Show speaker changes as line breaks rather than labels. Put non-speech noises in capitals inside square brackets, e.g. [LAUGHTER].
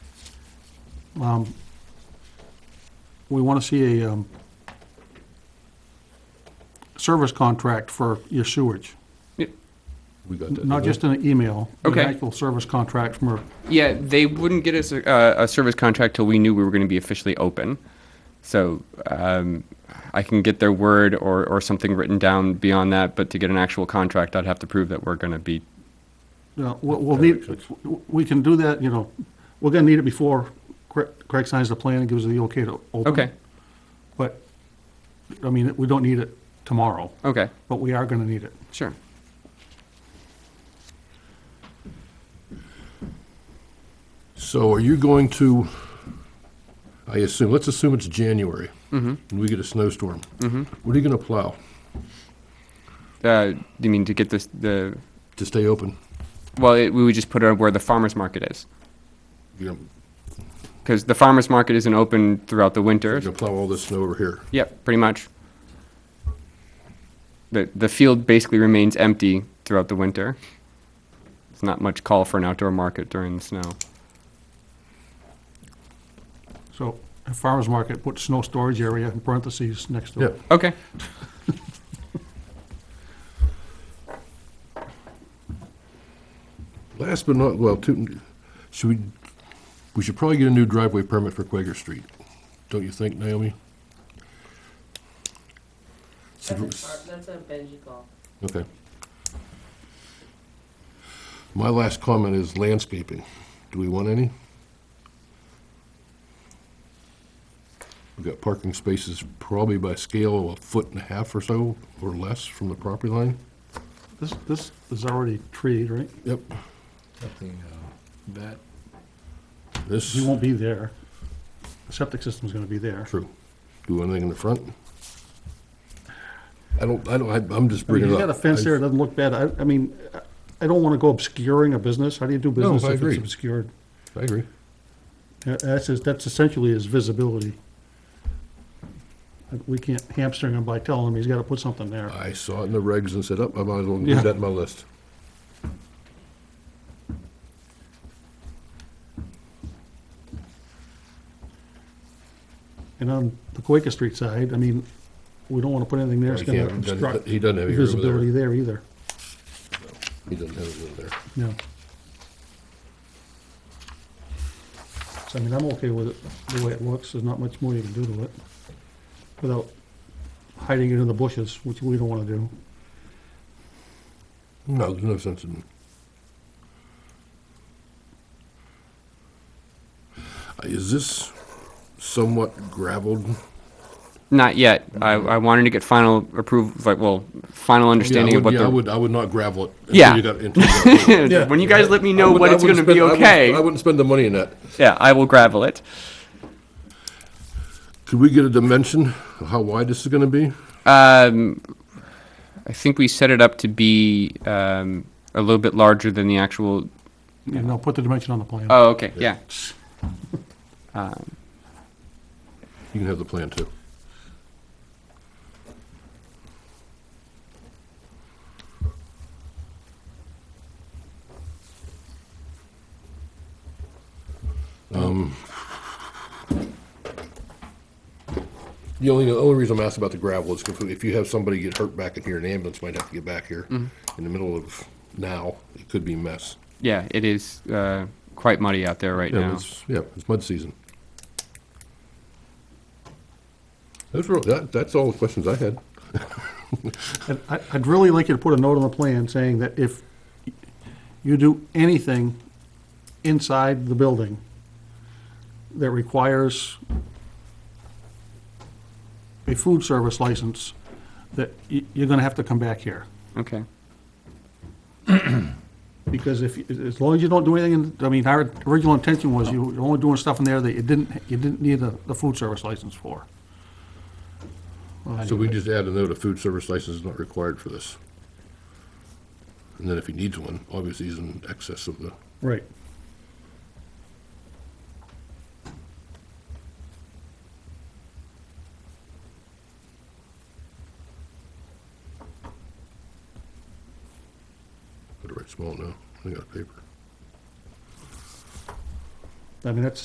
Um, We want to see a um, service contract for your sewage,
We got that.
not just an email. but
Okay.
An actual service contract from her.
Yeah, they wouldn't get us a, uh, a service contract till we knew we were going to be officially open. So um, I can get their word or, or something written down beyond that, but to get an actual contract, I'd have to prove that we're going to be.
Yeah, Uh, We'll we'll
Yeah,
need,
that's-
we can do that, you know, we're going to need it before Craig Craig signs the plan and gives the okay to open.
Okay,
But, I mean, we don't need it tomorrow,
okay,
but we are going to need it.
sure.
So are you going to, I assume, let's assume it's January
Mm-hmm.
and we get a snowstorm. What are you going to plow
Uh, you mean to get this, the,
to stay open?
well, it, we would just put it where the farmer's market is.
You're
Because the farmer's market isn't open throughout the winter.
going to plow all this snow over here.
Yep, pretty much. The, the field basically remains empty throughout the winter. There's not much call for an outdoor market during the snow.
So a farmer's market, put snow storage area in parentheses next to
Yeah.
it.
Okay.
Last but not, well, two, should we, we should probably get a new driveway permit for Quaker Street. Don't you think, Naomi?
That's a par- that's a Benji call.
Okay. My last comment is landscaping. Do we want any? We've got parking spaces probably by scale a foot and a half or so, or less from the property line.
This, this is already treed, right?
Yep.
Something, uh, that,
This
He
is
won't be there. The septic system's gonna be there.
true. Do you want anything in the front? I don't, I don't, I- I'm just
I mean,
bringing
he's
it up.
got a fence there, it doesn't look bad. I, I mean, I don't wanna go obscuring a business. How do you do
No,
business
I
if it's
agree.
obscured?
I I agree.
Uh, That's, his- that's essentially his visibility. Uh, We can't hamstring him by telling him he's gotta put something there.
I saw it in the regs and said, oh, I might as well
Yeah.
include that in my list.
And on the Quaker Street side, I mean, we don't wanna put anything there that's
He
gonna
can't-
obstruct
He doesn't have it over
visibility
there.
there either.
He doesn't have it over there.
No. So, I mean, I'm okay with it, the way it looks, there's not much more you can do to it, without hiding it in the bushes, which we don't wanna do.
No, there's no sense in. Uh, Is this somewhat gravelled?
Not yet. I, I wanted to get final approval, like, well, final understanding
Yeah, I
of what
would- yeah, I
the.
would, I would not gravel it. until
Yeah.
you got
[LAUGHS]
into the-
When you guys let me know
I would-
what
I
it's going to
wouldn't
be
spend- I wouldn't-
okay,
I wouldn't spend the money in that.
yeah, I will gravel it.
Could we get a dimension of how wide this is gonna be?
Um, I think we set it up to be um, a little bit larger than the actual.
You know, put the dimension on the plan.
Oh, okay, yeah.
You can have the plan too. Um, The only, the only reason I'm asking about the gravel is 'cause if you have somebody get hurt back in here, an ambulance might have to get back here in the middle of now, it could be a mess.
Yeah, it is uh, quite muddy out there right
Yeah,
now.
it's, yeah, it's mud season. Those were, that, that's all the questions I had.
And I, I'd really like you to put a note on the plan saying that if you do anything inside the building that requires a food service license, that you, you're gonna have to come back here.
Okay.
Because if, as long as you don't do anything, in- I mean, our original intention was you were only doing stuff in there that you didn't, you didn't need the, the food service license for.
So we just add a note, a food service license is not required for this. And then if he needs one, obviously he's in excess of the,
Right.
put it right small now, I got paper.
I mean, that's